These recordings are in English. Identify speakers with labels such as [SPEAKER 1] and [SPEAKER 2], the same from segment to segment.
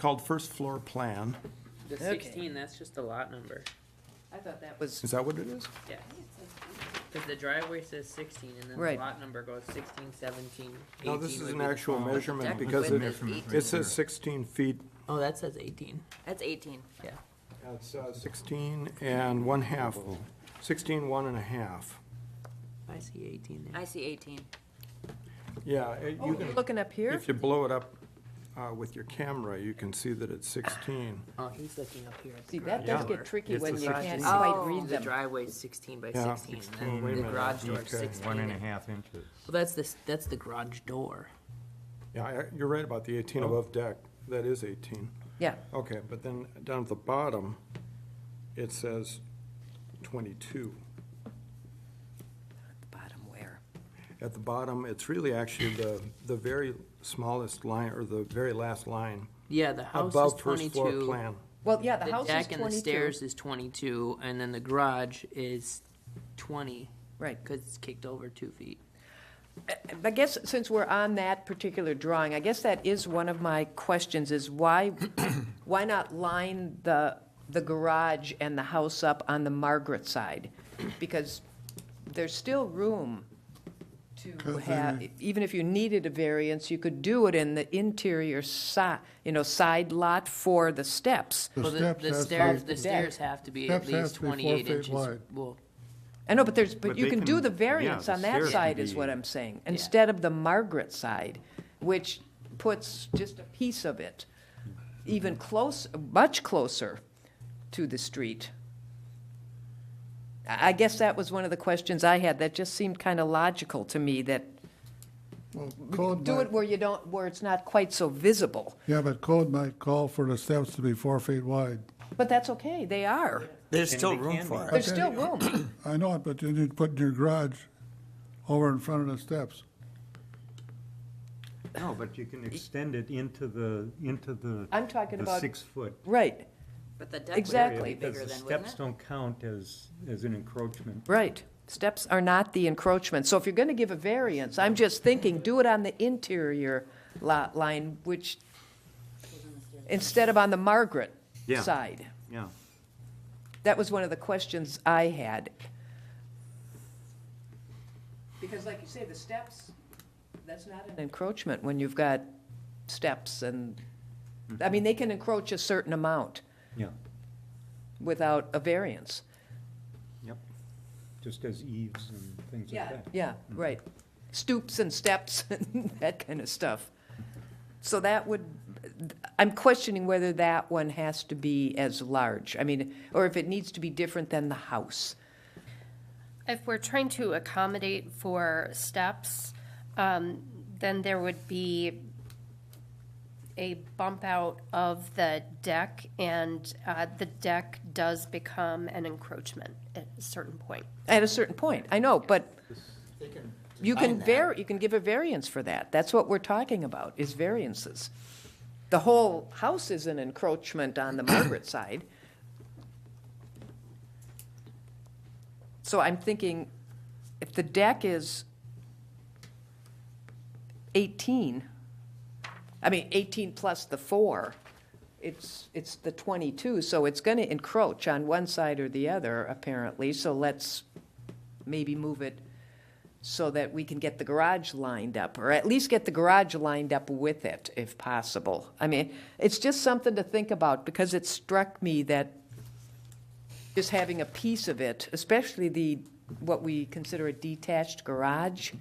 [SPEAKER 1] called first floor plan.
[SPEAKER 2] The
[SPEAKER 3] Okay.
[SPEAKER 2] sixteen, that's just the lot number,
[SPEAKER 4] I thought that was,
[SPEAKER 1] Is that what it is?
[SPEAKER 2] yeah. Cause the driveway says sixteen and then the
[SPEAKER 3] Right.
[SPEAKER 2] lot number goes sixteen, seventeen, eighteen.
[SPEAKER 1] No, this is
[SPEAKER 2] would
[SPEAKER 1] an
[SPEAKER 2] be the
[SPEAKER 1] actual
[SPEAKER 2] smallest.
[SPEAKER 1] measurement
[SPEAKER 3] Deck
[SPEAKER 1] because it,
[SPEAKER 3] width is eight-
[SPEAKER 1] it says sixteen feet,
[SPEAKER 2] Oh, that says eighteen,
[SPEAKER 3] That's eighteen.
[SPEAKER 2] yeah.
[SPEAKER 1] it's uh, sixteen and one half, sixteen one and a half.
[SPEAKER 2] I see eighteen there.
[SPEAKER 3] I see eighteen.
[SPEAKER 1] Yeah, it-
[SPEAKER 2] Oh,
[SPEAKER 1] you can,
[SPEAKER 5] oh, Looking up here?
[SPEAKER 1] if you blow it up uh, with your camera, you can see that it's sixteen.
[SPEAKER 2] Oh, he's looking up here. at the
[SPEAKER 5] See, that does
[SPEAKER 2] garage
[SPEAKER 5] get
[SPEAKER 2] door.
[SPEAKER 5] tricky
[SPEAKER 6] It's
[SPEAKER 5] when
[SPEAKER 6] the
[SPEAKER 5] you
[SPEAKER 6] size
[SPEAKER 5] can't
[SPEAKER 6] is-
[SPEAKER 5] quite
[SPEAKER 3] Oh.
[SPEAKER 5] read
[SPEAKER 2] The
[SPEAKER 5] them.
[SPEAKER 2] drivew's sixteen by
[SPEAKER 1] Yeah,
[SPEAKER 2] sixteen,
[SPEAKER 1] 16,
[SPEAKER 2] and
[SPEAKER 1] wait a
[SPEAKER 2] then the
[SPEAKER 1] minute.
[SPEAKER 2] garage door's
[SPEAKER 6] Okay,
[SPEAKER 2] sixteen.
[SPEAKER 6] One and a half inches.
[SPEAKER 2] Well, that's the, s- that's the garage door.
[SPEAKER 1] Yeah, I- you're right about the eighteen
[SPEAKER 2] Oh.
[SPEAKER 1] above deck, that is eighteen.
[SPEAKER 5] Yeah,
[SPEAKER 1] Okay, but then down at the bottom, it says twenty-two.
[SPEAKER 3] Bottom where?
[SPEAKER 1] At the bottom, it's really actually the, the very smallest line, or the very last line,
[SPEAKER 2] Yeah, the house is
[SPEAKER 1] above first floor
[SPEAKER 2] twenty-two.
[SPEAKER 1] plan.
[SPEAKER 5] well, yeah, the
[SPEAKER 2] The
[SPEAKER 5] house is
[SPEAKER 2] deck and the
[SPEAKER 5] twenty-two.
[SPEAKER 2] stairs is twenty-two, and then the garage is twenty,
[SPEAKER 5] Right.
[SPEAKER 2] cause it's kicked over two feet.
[SPEAKER 5] I guess, since we're on that particular drawing, I guess that is one of my questions, is why, why not line the, the garage and the house up on the Margaret side? Because there's still room to have, even if you needed a variance, you could do it in the interior si, you know, side lot for the steps.
[SPEAKER 7] The
[SPEAKER 2] Well, the,
[SPEAKER 7] steps
[SPEAKER 2] the
[SPEAKER 7] has to
[SPEAKER 2] stairs,
[SPEAKER 7] be-
[SPEAKER 2] the stairs have to be at
[SPEAKER 7] Steps has
[SPEAKER 2] least
[SPEAKER 7] to be four
[SPEAKER 2] twenty-eight
[SPEAKER 7] feet
[SPEAKER 2] inches.
[SPEAKER 7] wide.
[SPEAKER 2] Well,
[SPEAKER 5] I know, but there's, but
[SPEAKER 6] But
[SPEAKER 5] you
[SPEAKER 6] they
[SPEAKER 5] can do
[SPEAKER 6] can-
[SPEAKER 5] the
[SPEAKER 6] yeah,
[SPEAKER 5] variance
[SPEAKER 6] the
[SPEAKER 5] on that
[SPEAKER 6] stairs can
[SPEAKER 5] side is
[SPEAKER 6] be-
[SPEAKER 5] what I'm saying, instead of the Margaret side, which puts just a piece of it even close, much closer to the street. I I guess that was one of the questions I had, that just seemed kind of logical to me, that
[SPEAKER 7] Well, code
[SPEAKER 5] do it
[SPEAKER 7] might,
[SPEAKER 5] where you don't, where it's not quite so visible.
[SPEAKER 7] yeah, but code might call for the steps to be four feet wide.
[SPEAKER 5] But that's okay, they are,
[SPEAKER 8] There's still room for it.
[SPEAKER 5] there's still room.
[SPEAKER 7] I know it, but you need to put in your garage over in front of the steps.
[SPEAKER 6] No, but you can extend it into the, into the.
[SPEAKER 5] I'm talking
[SPEAKER 6] the
[SPEAKER 5] about-
[SPEAKER 6] six foot.
[SPEAKER 5] Right,
[SPEAKER 3] But the deck would
[SPEAKER 5] Exactly.
[SPEAKER 3] be bigger
[SPEAKER 6] Because the
[SPEAKER 3] then, wouldn't
[SPEAKER 6] steps
[SPEAKER 3] it?
[SPEAKER 6] don't count as, as an encroachment.
[SPEAKER 5] right. Steps are not the encroachment. So if you're going to give a variance, I'm just thinking, do it on the interior lot line, which, instead of on the Margaret
[SPEAKER 6] Yeah.
[SPEAKER 5] side.
[SPEAKER 6] Yeah.
[SPEAKER 5] That was one of the questions I had. Because like you say, the steps, that's not an encroachment when you've got steps and, I mean, they can encroach a certain amount
[SPEAKER 6] Yeah,
[SPEAKER 5] without a variance.
[SPEAKER 6] yep. Just as eaves and things like that. Mm-hmm.
[SPEAKER 5] Yeah, right. Stoops and steps, and that kind of stuff. So that would, I'm questioning whether that one has to be as large. I mean, or if it needs to be different than the house.
[SPEAKER 9] If we're trying to accommodate for steps, um, then there would be a bump out of the deck, and uh, the deck does become an encroachment at a certain point.
[SPEAKER 5] At a certain point, I know, but you can
[SPEAKER 8] that.
[SPEAKER 5] var, you can give a variance for that. That's what we're talking about, is variances. The whole house is an encroachment on the Margaret side. So I'm thinking, if the deck is eighteen, I mean, eighteen plus the four, it's, it's the twenty-two, so it's gonna encroach on one side or the other, apparently, so let's maybe move it so that we can get the garage lined up, or at least get the garage lined up with it, if possible. I mean, it's just something to think about, because it struck me that just having a piece of it, especially the, what we consider a detached garage,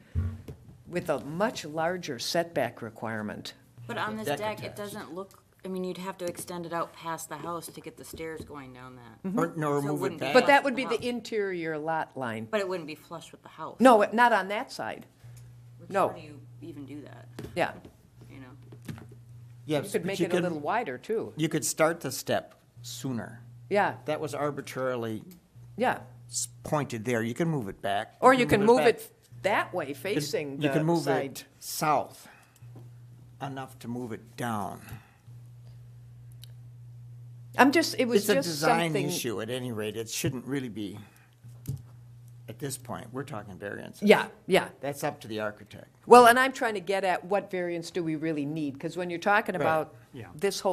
[SPEAKER 5] with a much larger setback requirement.
[SPEAKER 3] But on this
[SPEAKER 8] deck
[SPEAKER 3] deck, it
[SPEAKER 8] attached.
[SPEAKER 3] doesn't look, I mean, you'd have to extend it out past the house to get the stairs going down that.
[SPEAKER 5] Mm-hmm.
[SPEAKER 8] Or, nor
[SPEAKER 3] So
[SPEAKER 8] move
[SPEAKER 3] wouldn't
[SPEAKER 8] it
[SPEAKER 3] be
[SPEAKER 8] back.
[SPEAKER 5] But that would be the interior lot line.
[SPEAKER 3] But it wouldn't be flush with the house.
[SPEAKER 5] No, it- not on that side,
[SPEAKER 3] Which,
[SPEAKER 5] no.
[SPEAKER 3] How do you even do that,
[SPEAKER 5] yeah.
[SPEAKER 3] you know?
[SPEAKER 8] Yes,
[SPEAKER 5] You could
[SPEAKER 8] but
[SPEAKER 5] make it a
[SPEAKER 8] could-
[SPEAKER 5] little wider, too.
[SPEAKER 8] You could start the step sooner.
[SPEAKER 5] Yeah,
[SPEAKER 8] That was arbitrarily
[SPEAKER 5] yeah.
[SPEAKER 8] s- pointed there. You can move it back.
[SPEAKER 5] Or you can move
[SPEAKER 8] back.
[SPEAKER 5] it that way,
[SPEAKER 8] You-
[SPEAKER 5] facing
[SPEAKER 8] You can
[SPEAKER 5] the
[SPEAKER 8] move
[SPEAKER 5] side.
[SPEAKER 8] it south enough to move it down.
[SPEAKER 5] I'm just, it was
[SPEAKER 8] It's a
[SPEAKER 5] just
[SPEAKER 8] design
[SPEAKER 5] something.
[SPEAKER 8] issue at any rate. It shouldn't really be, at this point, we're talking variance.
[SPEAKER 5] Yeah, yeah.
[SPEAKER 8] That's up to the architect.
[SPEAKER 5] Well, and I'm trying to get at what variance do we really need? Because when you're talking about this whole